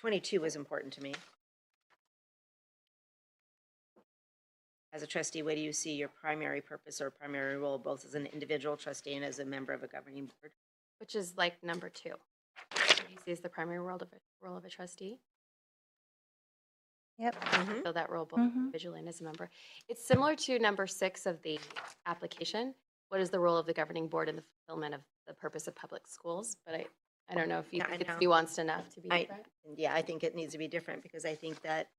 22 was important to me. As a trustee, what do you see your primary purpose or primary role, both as an individual trustee and as a member of a governing board? which is like number two. He sees the primary role of, a- role of a trustee, Yep. Mhm. fill that role both Mhm. individually and as a member. It's similar to number six of the application. What is the role of the governing board in the fulfillment of the purpose of public schools? But I, I don't know if you Yeah, I think it's know. nuanced enough to be I- different. And yeah, I think it needs to be different because I think that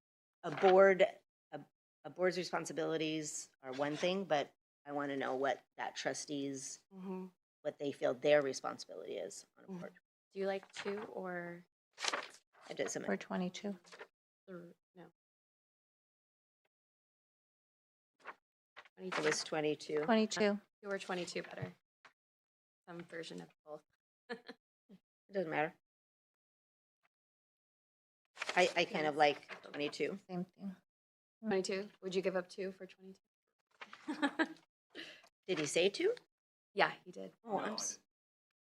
a board, a, a board's responsibilities are one thing, but I want to know what that trustees, Mhm. what they feel their responsibility is on a Mhm. board. Do you like two or It doesn't Or matter. 22. three? No. It 22 was 22. 22. Two or 22 better? Some version of both. It doesn't matter. I, I kind of like 22. Same thing. 22? Would you give up two for 22? Did he say two? Yeah, he did. Oh, I'm s-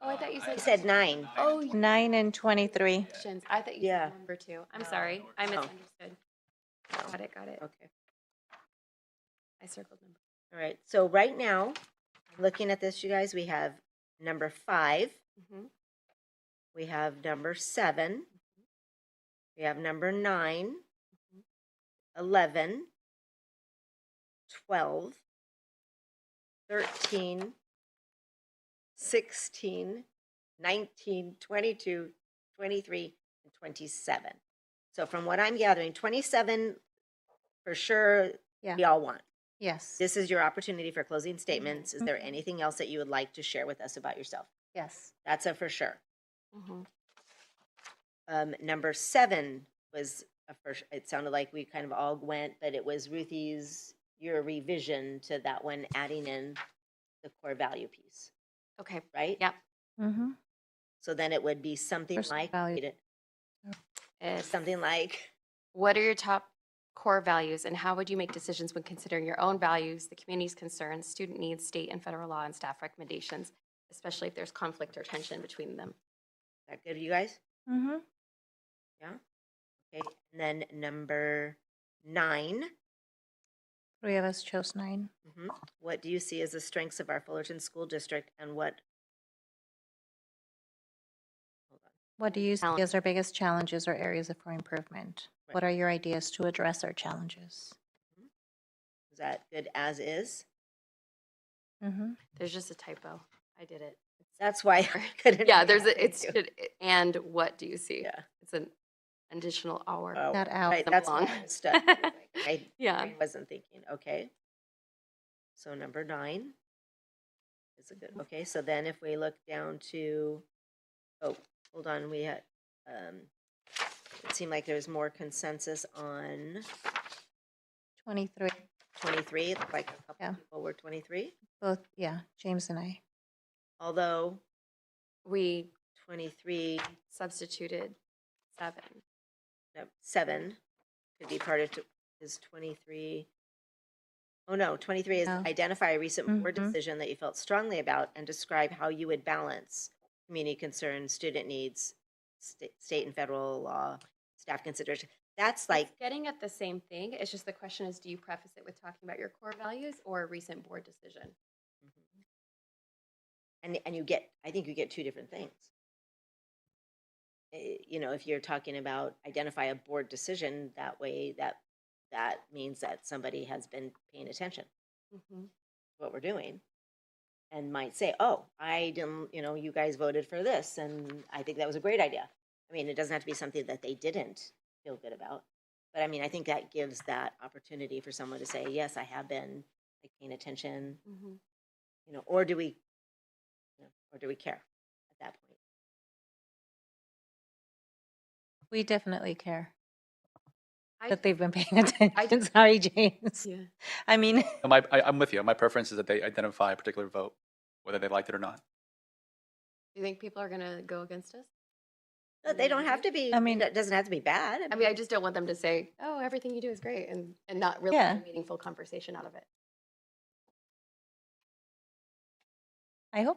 Oh, I thought you he said. said nine. Oh, you- Nine and 23. options. I thought you Yeah. said number two. I'm No, sorry. I no. misunderstood. No. Got it, got it. Okay. I circled number. All right. So right now, looking at this, you guys, we have number five, Mhm. Mm-hmm. we have number seven, we have number nine, 11, 12, 13, 16, 19, 22, 23, and 27. So from what I'm gathering, 27 for sure Yeah. we all want. Yes. This is your opportunity for closing statements. Is there anything else that you would like to share with us about yourself? Yes. That's a for sure. Mm-hmm. Mhm. Um, number seven was a first, it sounded like we kind of all went, but it was Ruthie's, your revision to that one, adding in the core value piece, Okay, right? Yeah. Mm-hmm. So then it would be something Personal like, value. read it, it's, um, something like, what are your top core values and how would you make decisions when considering your own values, the community's concerns, student needs, state and federal law and staff recommendations, especially if there's conflict or tension between them? is that good, you guys? Mm-hmm. Okay, and then number nine, Three of us chose nine. mhm, what do you see as the strengths of our Fullerton School District and what? Hold on. What do you see Challenge. as our biggest challenges or areas for improvement? Right. What are your ideas to address our challenges? Is that good as is? Mm-hmm. There's just a typo. I did it. That's why I couldn't. Yeah, read there's, it. a it's, Thank you. should- and what do you see? Yeah. It's an additional Oh, hour. Not out. Right, them that's what along. I understood. I Yeah. I wasn't thinking, okay. So number nine is a good, okay, so then if we look down to, oh, hold on, we had, um, it seemed like there was more consensus on 23. twenty-three, it looked like a Yeah. couple people were twenty-three, Both, yeah, James and I. although We twenty-three, substituted seven. no, seven could be part of, t- is twenty-three. Oh, no, twenty-three is No. identify a recent board Mhm. decision that you felt strongly about and describe how you would balance community concerns, student needs, sta- state and federal law, staff considerations. That's like, It's Getting at the same thing, it's just the question is, do you preface it with talking about your core values or a recent board decision? and, and you get, I think you get two different things. Eh, You know, if you're talking about identify a board decision, that way, that, that means that somebody has been paying attention. Mm-hmm, what we're doing and might say, oh, I didn't, you know, you guys voted for this and I think that was a great idea. I mean, it doesn't have to be something that they didn't feel good about. But I mean, I think that gives that opportunity for someone to say, yes, I have been like, paying attention, mm-hmm. you know, or do we, you know, or do we care at that point? We definitely care I- that they've been paying attention. Sorry, James. Yeah. I mean, No, My, I, I'm with you. My preference is that they identify a particular vote, whether they liked it or not. Do you think people are gonna go against us? No, they don't have to be, I I mean, mean- it doesn't have to be bad. I mean, I just don't want them to say, oh, everything you do is great and, and not really Yeah. have a meaningful conversation out of it. I hope